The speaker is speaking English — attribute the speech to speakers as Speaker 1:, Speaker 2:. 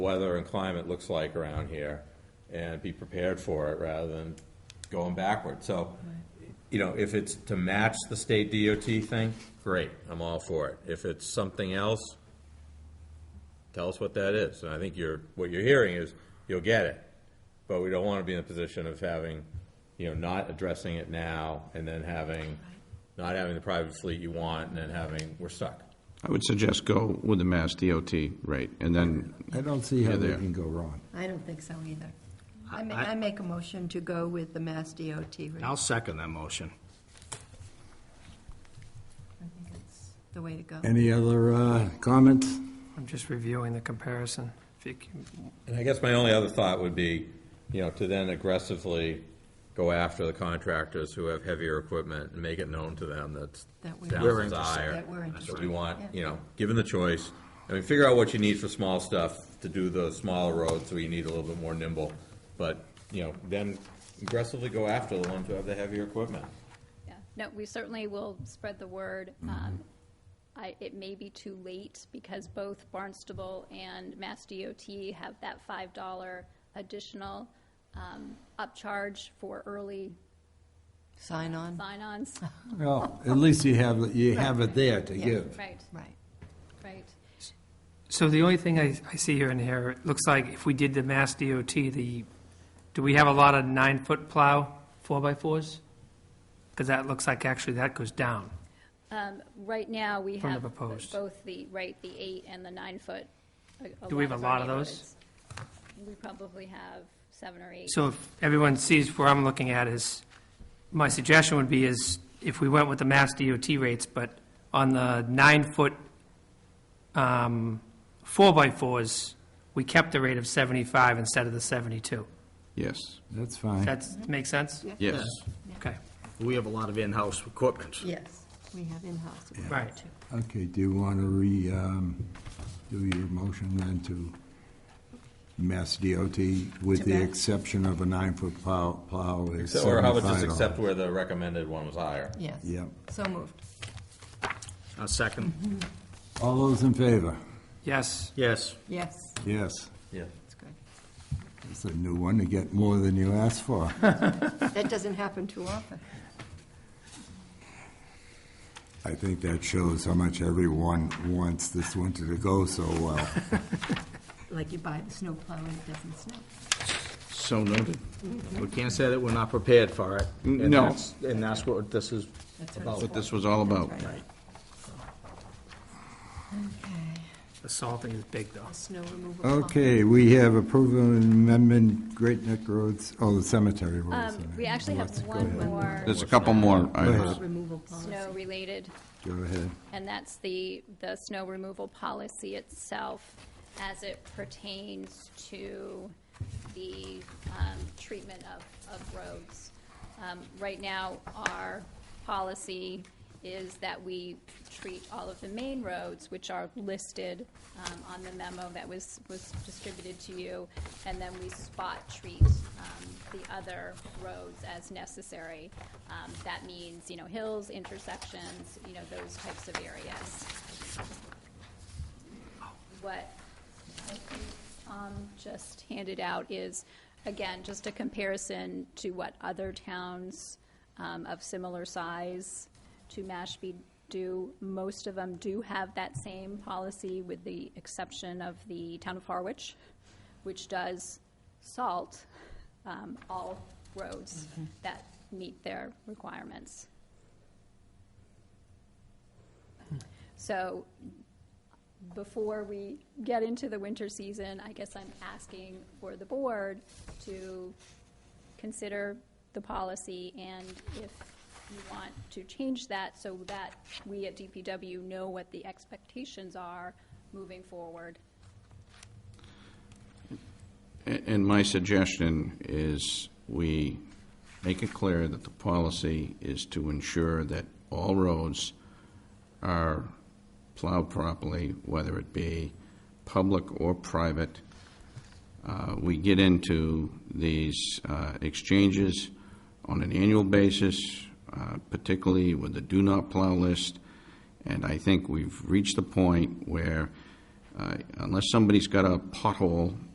Speaker 1: weather and climate looks like around here and be prepared for it rather than going backward. So, you know, if it's to match the state DOT thing, great, I'm all for it. If it's something else, tell us what that is. And I think you're, what you're hearing is, you'll get it. But we don't want to be in a position of having, you know, not addressing it now and then having, not having the private fleet you want and then having, we're stuck.
Speaker 2: I would suggest go with the Mass DOT rate, and then,
Speaker 3: I don't see how
Speaker 2: Yeah,
Speaker 3: they
Speaker 2: there.
Speaker 3: can go wrong.
Speaker 4: I don't think so either. I ma- I make a motion to go with the Mass DOT rate. I
Speaker 5: I'll second that motion.
Speaker 4: think it's the way to go.
Speaker 3: Any other uh, comments?
Speaker 6: I'm just reviewing the comparison. If you can-
Speaker 1: And I guess my only other thought would be, you know, to then aggressively go after the contractors who have heavier equipment and make it known to them that's
Speaker 4: That we- We're
Speaker 1: Downs is
Speaker 4: interested.
Speaker 1: higher.
Speaker 4: That we're
Speaker 1: So
Speaker 4: interested,
Speaker 1: we want,
Speaker 4: yeah.
Speaker 1: you know, given the choice, I mean, figure out what you need for small stuff to do the smaller roads, so you need a little bit more nimble. But, you know, then aggressively go after the ones who have the heavier equipment.
Speaker 7: Yeah, no, we certainly will spread the word.
Speaker 6: Mm-hmm.
Speaker 7: Um, I, it may be too late because both Barnstable and Mass DOT have that five dollar additional, um, upcharge for early
Speaker 4: Sign on?
Speaker 7: sign-ons.
Speaker 3: Well, at least you have, you have it there to
Speaker 4: Yeah.
Speaker 3: give.
Speaker 7: Right,
Speaker 4: Right.
Speaker 7: right.
Speaker 6: So the only thing I, I see here and here, it looks like if we did the Mass DOT, the, do we have a lot of nine-foot plow, four-by-fours? Because that looks like actually that goes down.
Speaker 7: Um, right now, we
Speaker 6: From the
Speaker 7: have b-
Speaker 6: proposed.
Speaker 7: both the, right, the eight and the nine-foot.
Speaker 6: Do we have a
Speaker 7: our
Speaker 6: lot of those?
Speaker 7: neighborhoods. We probably have seven or eight.
Speaker 6: So if everyone sees where I'm looking at is, my suggestion would be is if we went with the Mass DOT rates, but on the nine-foot, um, four-by-fours, we kept the rate of 75 instead of the 72.
Speaker 2: yes,
Speaker 3: That's fine.
Speaker 6: That's, make sense?
Speaker 2: yes.
Speaker 6: Okay.
Speaker 5: We have a lot of in-house equipment.
Speaker 4: Yes, we have in-house. equipment,
Speaker 6: Right.
Speaker 4: too.
Speaker 3: Okay, do you want to re, um, do your motion then to Mass DOT with
Speaker 4: To
Speaker 3: the
Speaker 4: Mass.
Speaker 3: exception of a nine-foot plow, plow is
Speaker 1: So- Or how about just
Speaker 3: $75.
Speaker 1: accept where the recommended one was higher?
Speaker 4: Yes.
Speaker 3: Yep.
Speaker 4: So moved.
Speaker 5: A second.
Speaker 3: All those in favor?
Speaker 6: Yes.
Speaker 5: Yes.
Speaker 4: Yes,
Speaker 3: Yes.
Speaker 1: Yeah.
Speaker 4: that's good.
Speaker 3: It's a new one to get more than you asked for.
Speaker 4: That doesn't happen too often.
Speaker 3: I think that shows how much everyone wants this winter to go so well.
Speaker 4: Like you buy the snowplow and it doesn't snow.
Speaker 2: So noted.
Speaker 5: We can't say that we're not prepared for it. and
Speaker 2: No.
Speaker 5: that's- And that's what this is
Speaker 4: That's what
Speaker 5: about.
Speaker 2: What this was all about.
Speaker 4: That's right. Okay,
Speaker 6: The salting is big, though.
Speaker 4: the snow removal. plan.
Speaker 3: Okay, we have approval and amendment, Great Neck Roads, oh, the cemetery roads.
Speaker 7: Um, we actually have one more
Speaker 2: There's a couple more items.
Speaker 4: Removal policy.
Speaker 7: snow-related
Speaker 3: Go ahead.
Speaker 7: And that's the, the snow removal policy itself as it pertains to the um, treatment of, of roads. Um, Right now, our policy is that we treat all of the main roads, which are listed um, on the memo that was, was distributed to you, and then we spot treat um, the other roads as necessary. Um, That means, you know, hills, intersections, you know, those types of areas. What I think Tom Um, just handed out is, again, just a comparison to what other towns um, of similar size to Mashpee do. Most of them do have that same policy, with the exception of the town of Harwich, which does salt um, all roads that meet their requirements. So before we get into the winter season, I guess I'm asking for the board to consider the policy and if you want to change that so that we at DPW know what the expectations are moving forward.
Speaker 2: A- And my suggestion is we make it clear that the policy is to ensure that all roads are plowed properly, whether it be public or private. Uh, We get into these uh, exchanges on an annual basis, uh, particularly with the do not plow list. And I think we've reached the point where uh, I- unless somebody's got a pothole